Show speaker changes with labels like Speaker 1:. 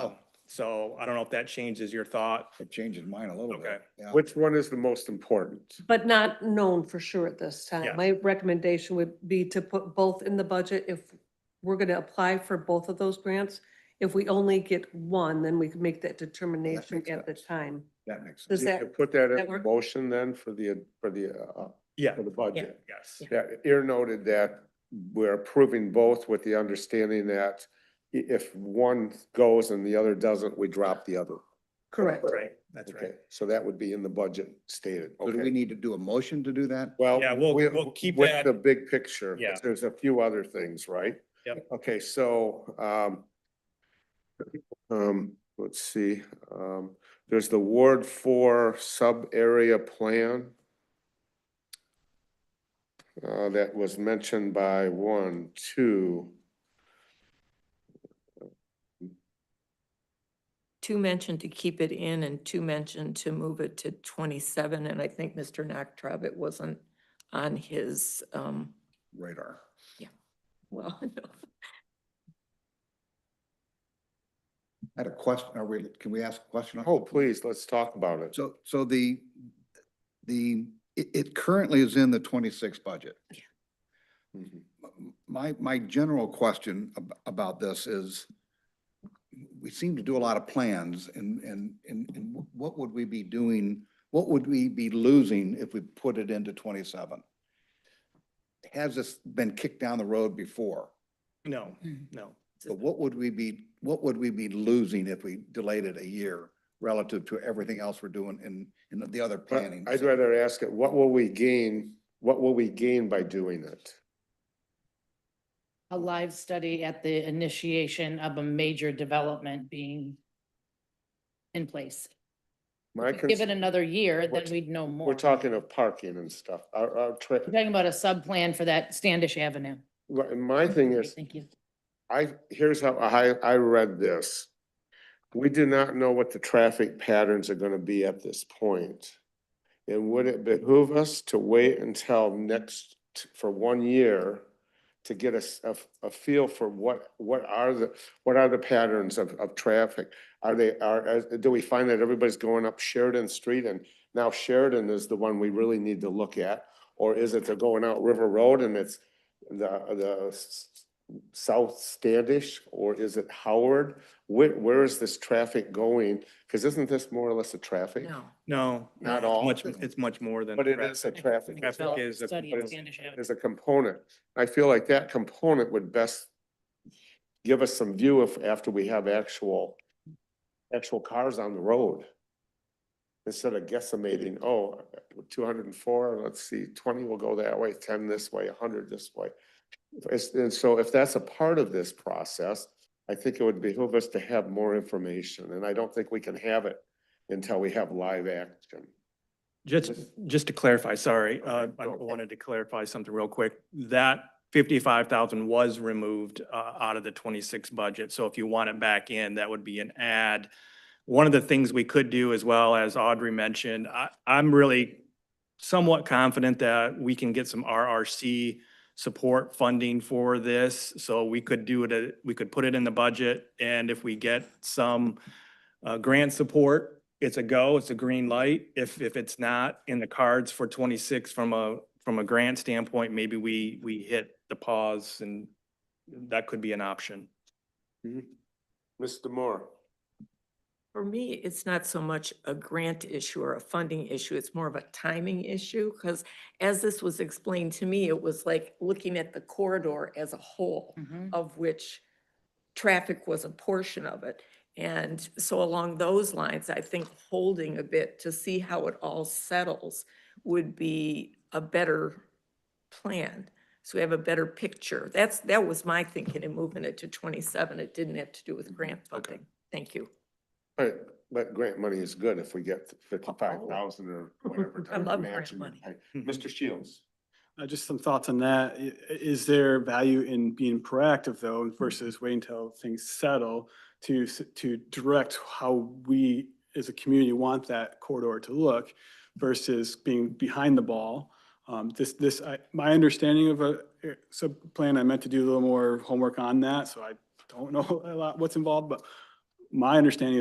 Speaker 1: Oh.
Speaker 2: Um, So I don't know if that changes your thought.
Speaker 3: It changes mine a little bit.
Speaker 2: Okay.
Speaker 3: Yeah.
Speaker 1: Which one is the most important?
Speaker 4: But not known for sure at this
Speaker 2: Yeah.
Speaker 4: time. My recommendation would be to put both in the budget if we're gonna apply for both of those grants. If we only get one, then we can make that determination
Speaker 3: makes
Speaker 4: at the
Speaker 3: sense.
Speaker 4: time.
Speaker 3: That makes
Speaker 4: Does
Speaker 3: sense.
Speaker 1: You
Speaker 4: that-
Speaker 1: could Put that
Speaker 4: that
Speaker 1: in
Speaker 4: work?
Speaker 1: motion then for the, for the, uh,
Speaker 2: Yeah,
Speaker 1: for the budget.
Speaker 2: yes.
Speaker 1: Yeah, ear noted that we're approving both with the understanding that i- if one goes and the other doesn't, we drop the other.
Speaker 4: Correct.
Speaker 2: Right, that's right.
Speaker 1: Okay, so that would be in the budget stated,
Speaker 3: So do we
Speaker 1: okay?
Speaker 3: need to do a motion to do that?
Speaker 1: Well,
Speaker 2: Yeah, we'll-
Speaker 1: we-
Speaker 2: we'll keep that-
Speaker 1: With the big picture,
Speaker 2: Yeah.
Speaker 1: 'cause there's a few other things, right?
Speaker 2: Yep.
Speaker 1: Okay, so, um, um, let's see, um, there's the Ward Four sub-area plan uh, that was mentioned by one, two,
Speaker 5: Two mentioned to keep it in and two mentioned to move it to twenty-seven, and I think Mr. Nachtrab, it wasn't on his, um,
Speaker 3: Radar.
Speaker 5: well, no.
Speaker 3: I had a question, are we, can we ask a question? on-
Speaker 1: oh, please, let's talk about it.
Speaker 3: So, so the, the, it, it currently is in the twenty-six budget.
Speaker 1: Mhm.
Speaker 3: M- My, my general question ab- about this is, we seem to do a lot of plans and, and, and and wh- what would we be doing? What would we be losing if we put it into twenty-seven? Has this been kicked down the road before?
Speaker 2: No, no.
Speaker 3: But what would we be, what would we be losing if we delayed it a year relative to everything else we're doing in, in the other
Speaker 1: But
Speaker 3: planning?
Speaker 1: I'd rather ask it, what will we gain, what will we gain by doing it?
Speaker 6: a live study at the initiation of a major development being in place.
Speaker 1: My
Speaker 6: Give it
Speaker 1: concern-
Speaker 6: another year,
Speaker 1: We're
Speaker 6: then
Speaker 1: t-
Speaker 6: we'd know more.
Speaker 1: We're talking of parking and stuff, our, our trip.
Speaker 6: We're Talking about a sub-plan for that Standish Avenue.
Speaker 1: Right, and My thing is,
Speaker 6: Thank you.
Speaker 1: I, here's how I, I read this. We do not know what the traffic patterns are gonna be at this point. And would it behoove us to wait until next, t- for one year to get a s- a, f- a feel for what, what are the, what are the patterns of, of traffic? Are they, are, as- do we find that everybody's going up Sheridan Street and now Sheridan is the one we really need to look at? Or is it they're going out River Road and it's the, the s- South Standish, or is it Howard? Where, where is this traffic going? Because isn't this more or less a traffic?
Speaker 5: No.
Speaker 2: No.
Speaker 1: Not
Speaker 2: it's
Speaker 1: all.
Speaker 2: Much, it's much more than.
Speaker 1: But it is a traffic.
Speaker 2: Traffic
Speaker 1: study.
Speaker 2: is a-
Speaker 6: Study of Standish Avenue.
Speaker 1: There's a component. I feel like that component would best give us some view if, after we have actual, actual cars on the road. Instead of guesstimating, oh, two hundred and four, let's see, twenty will go that way, ten this way, hundred this way. It's- And so if that's a part of this process, I think it would behoove us to have more information, and I don't think we can have it until we have live action.
Speaker 2: Just, just to clarify, sorry, uh,
Speaker 1: Okay,
Speaker 2: I
Speaker 1: go.
Speaker 2: wanted to clarify something real quick. That fifty-five thousand was removed, uh, out of the twenty-six budget. So if you want it back in, that would be an add. One of the things we could do as well, as Audrey mentioned, I, I'm really somewhat confident that we can get some RRC support funding for this. So we could do it, uh, we could put it in the budget. And if we get some uh, grant support, it's a go, it's a green light. If, if it's not in the cards for 26 from a, from a grant standpoint, maybe we, we hit the pause and that could be an option.
Speaker 1: Mr. Moore?
Speaker 5: For me, it's not so much a grant issue or a funding issue, it's more of a timing issue, because as this was explained to me, it was like looking at the corridor as a whole.
Speaker 6: Mhm.
Speaker 5: of which traffic was a portion of it. And so along those lines, I think holding a bit to see how it all settles would be a better plan. So we have a better picture. That's, that was my thinking in moving it to twenty-seven. It didn't have to do with grant
Speaker 2: Okay.
Speaker 5: funding. Thank you.
Speaker 1: But, but grant money is good if we get fifty-five thousand or whatever.
Speaker 5: Oh. I
Speaker 1: type of
Speaker 5: love grant
Speaker 1: matching we
Speaker 5: money.
Speaker 1: pay. Mr. Shields?
Speaker 7: Uh, just some thoughts on that. I- i- Is there value in being proactive though versus waiting until things settle to, s- to direct how we as a community want that corridor to look versus being behind the ball? Um, this, this, I, my understanding of a eh, sub-plan, I meant to do a little more homework on that, so I don't know a lot what's involved, but my understanding is.